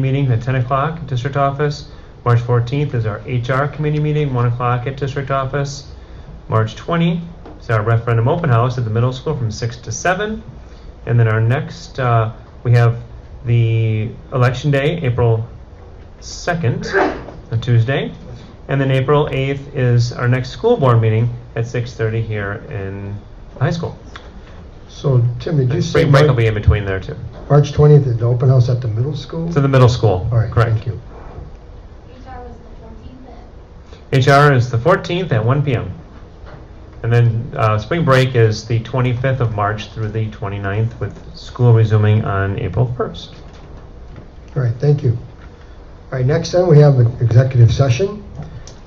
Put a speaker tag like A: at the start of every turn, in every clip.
A: meeting at 10 o'clock at district office. March 14th is our HR committee meeting, 1 o'clock at district office. March 20 is our referendum open house at the middle school from 6 to 7. And then our next, uh, we have the election day, April 2nd, a Tuesday. And then April 8th is our next school board meeting at 6:30 here in the high school.
B: So, Tim, did you say
A: Spring break will be
B: Mar-
A: in between there too.
B: March 20th is the open house at the middle school?
A: It's in the middle school.
B: All right,
A: Correct.
B: thank you.
C: HR was the fourteenth at
A: HR is the 14th at 1 PM. And then uh, spring break is the 25th of March through the 29th, with school resuming on April 1st.
B: All right, thank you. All right, next then, we have an executive session.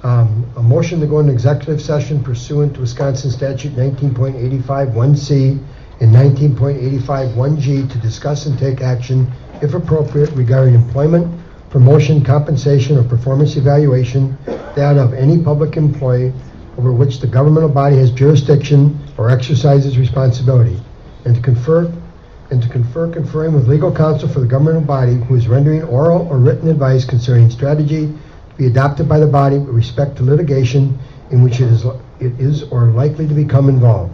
B: Um, A motion to go into executive session pursuant to Wisconsin statute 19.851C and 19.851G to discuss and take action, if appropriate, regarding employment, promotion, compensation, or performance evaluation, that of any public employee over which the governmental body has jurisdiction or exercises responsibility, and to confer and to confer conferring with legal counsel for the governmental body who is rendering oral or written advice concerning strategy to be adopted by the body with respect to litigation in which it is, it is or likely to become involved.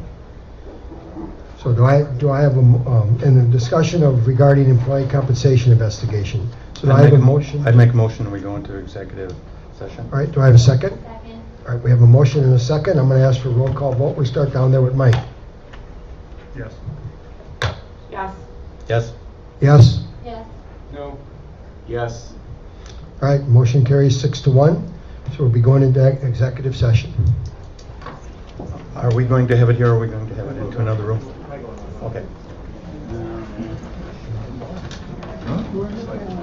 B: So do I, do I have a, mo- um, and the discussion of regarding employee compensation investigation. So do I have a motion?
D: I'd make a motion, we go into executive session.
B: All right, do I have a second?
C: second.
B: All right, we have a motion and a second. I'm going to ask for a roll call vote. We start down there with Mike.
D: Yes.
E: Yes.
D: Yes?
B: Yes?
C: Yes.
D: No. Yes.
B: All right, motion carries six to one, so we'll be going into executive session.
D: Are we going to have it here, or are we going to have it into another room? Okay.